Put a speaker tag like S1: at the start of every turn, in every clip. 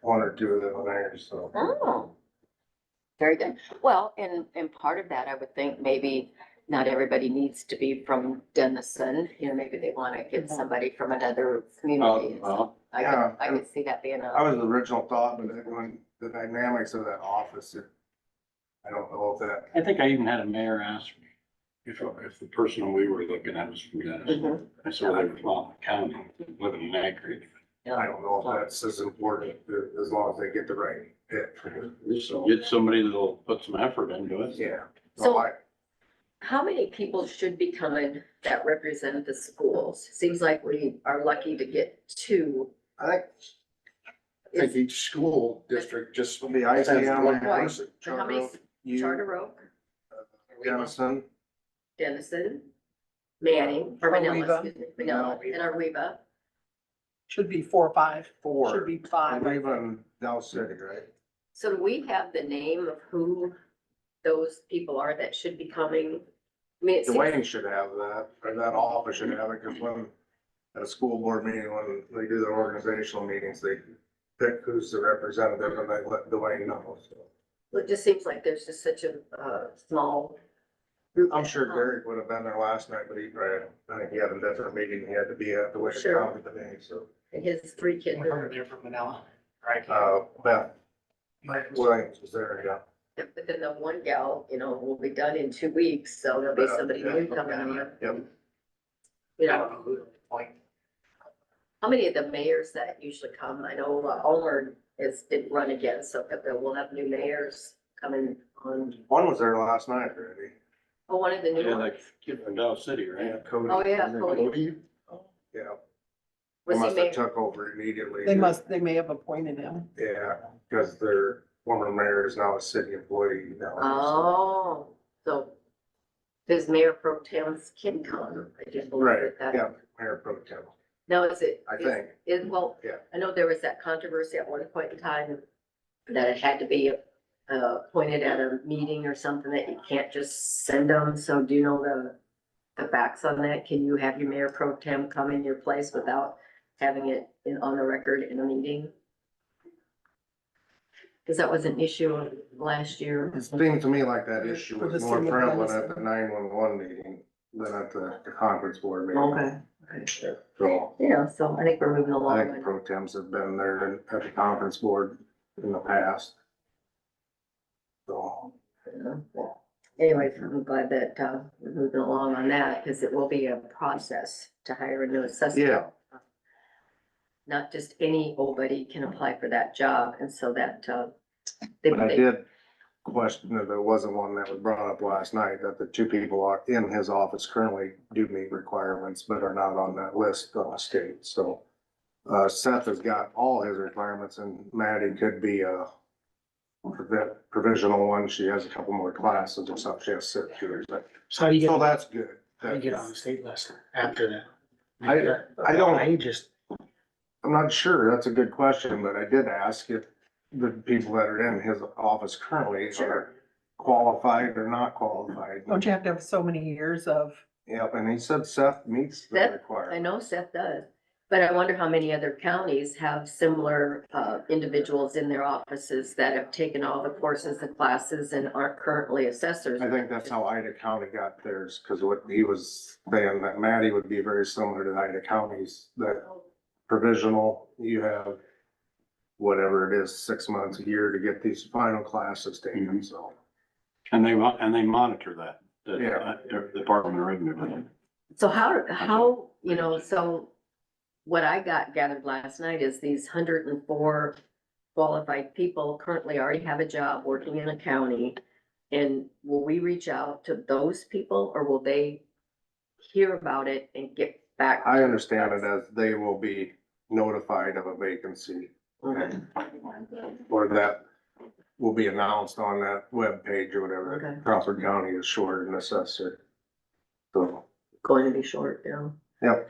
S1: one or two of them there, so.
S2: Oh. Very good. Well, and, and part of that, I would think maybe not everybody needs to be from Denison. You know, maybe they want to get somebody from another community.
S3: well.
S2: I
S1: Yeah.
S2: could, I could see that being
S1: That
S2: a,
S1: was the original thought, but then when the dynamics of that office, it- I don't know if that,
S3: I think I even had a mayor ask me if, if the person we were looking at was from Dennis.
S2: Mhm.
S3: I said, I'm from the county, living in Anchorage.
S1: I don't know if that's as important uh, as long as they get the right fit.
S3: So get somebody that'll put some effort into it.
S1: Yeah.
S2: So-
S1: I-
S2: how many people should be coming that represent the schools? Seems like we are lucky to get two.
S1: I think
S4: I think each school district just.
S1: the ICM
S4: Right.
S1: one person,
S2: So how many,
S1: Charter, you,
S2: Charter Oak,
S1: Dennison,
S2: Denison, Manning, or Manila,
S5: Arriva.
S2: excuse me, Manila, and Arriva.
S5: Should be four or five. Should
S1: four,
S5: be five.
S1: and even Dow City, right?
S2: So do we have the name of who those people are that should be coming? I mean, it seems,
S1: Dwayne should have that, or that office should have it, because when, at a school board meeting, when they do their organizational meetings, they pick who's the representative and they let Dwayne know. so.
S2: it just seems like there's just such a, uh, small group.
S1: I'm sure Derek would have been there last night, but he, ran. I think he had a different meeting he had to be at the way to
S2: Sure.
S1: come today, so.
S2: And his three kids.
S5: Over there from Manila. Right.
S1: Uh, Beth Williams was there, yeah.
S2: But then the one gal, you know, will be done in two weeks, so there'll be somebody new coming in.
S1: Yep.
S2: You know, how many of the mayors that usually come? I know uh, Ulmer is, did run again, so we'll have new mayors coming on.
S1: One was there last night already.
S2: Oh, one of the new
S3: Yeah,
S2: ones.
S3: like, kid from Dow City, right?
S1: Cody.
S2: Oh, yeah, Cody.
S1: Yeah. They
S2: Was he
S1: must
S2: mayor?
S1: have took over immediately.
S5: They must, they may have appointed him.
S1: Yeah, because their former mayor is now a city employee now.
S2: Oh, so does Mayor Pro Tem's kid come? I just
S1: Right,
S2: wondered that.
S1: yeah, mayor pro tem,
S2: Now, is it?
S1: I
S2: is-
S1: think.
S2: Is, well,
S1: Yeah.
S2: I know there was that controversy at one point in time that it had to be uh, appointed at a meeting or something that you can't just send them. So do you know the, the facts on that? Can you have your Mayor Pro Tem come in your place without having it in, on the record in a meeting? Because that was an issue last year.
S1: It seemed to me like that issue
S5: For the
S1: was more
S5: city of
S1: prevalent at
S5: Madison.
S1: the nine-one-one meeting than at the the conference board meeting. So
S2: Yeah, so I think we're moving
S1: I
S2: along.
S1: think the pro temps have been there and at the conference board in the past. So,
S2: Anyway, I'm glad that, uh, we're moving along on that, because it will be a process to hire a new assessor.
S1: Yeah.
S2: Not just any old buddy can apply for that job, and so that, uh. they-
S1: but I
S2: they-
S1: did question that there wasn't one that was brought up last night, that the two people are in his office currently do meet requirements, but are not on that list on the state, so. Uh, Seth has got all his requirements and Maddie could be a provi- provisional one. She has a couple more classes or something. She has six years, but,
S6: So how do you
S1: so
S6: get,
S1: that's good.
S6: how do you get on the state list after that?
S1: I- I don't-
S6: I just,
S1: I'm not sure. That's a good question, but I did ask if the people that are in his office currently are qualified or not qualified.
S5: Don't you have to have so many years of,
S1: Yep, and he said Seth meets the
S2: Seth, I
S1: requirement.
S2: know Seth does, but I wonder how many other counties have similar, uh, individuals in their offices that have taken all the courses and classes and aren't currently assessors.
S1: I think that's how Ida County got theirs, because what he was saying, that Matty would be very similar to Ida County's, that provisional, you have whatever it is, six months, a year to get these final classes taken,
S3: Mhm.
S1: so.
S3: And they, mo- and they monitor that, the,
S1: Yeah.
S3: uh, the Department of Revenue.
S2: So how, how, you know, so what I got gathered last night is these hundred and four qualified people currently already have a job working in a county. And will we reach out to those people or will they hear about it and get back?
S1: I understand it as they will be notified of a vacancy,
S2: Okay,
S1: or that will be announced on that web page or whatever,
S2: Okay.
S1: that Crawford County is short an assessor. So,
S2: Going to be short, you know?
S1: Yep.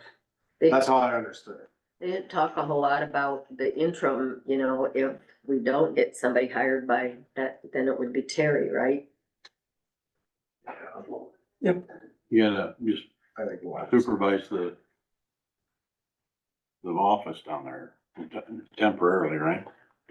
S2: They-
S1: that's how I understood it.
S2: They didn't talk a whole lot about the interim, you know, if we don't get somebody hired by that, then it would be Terry, right?
S3: You gotta just
S1: I think. we'll have to-
S3: supervise the the office down there temporarily, right?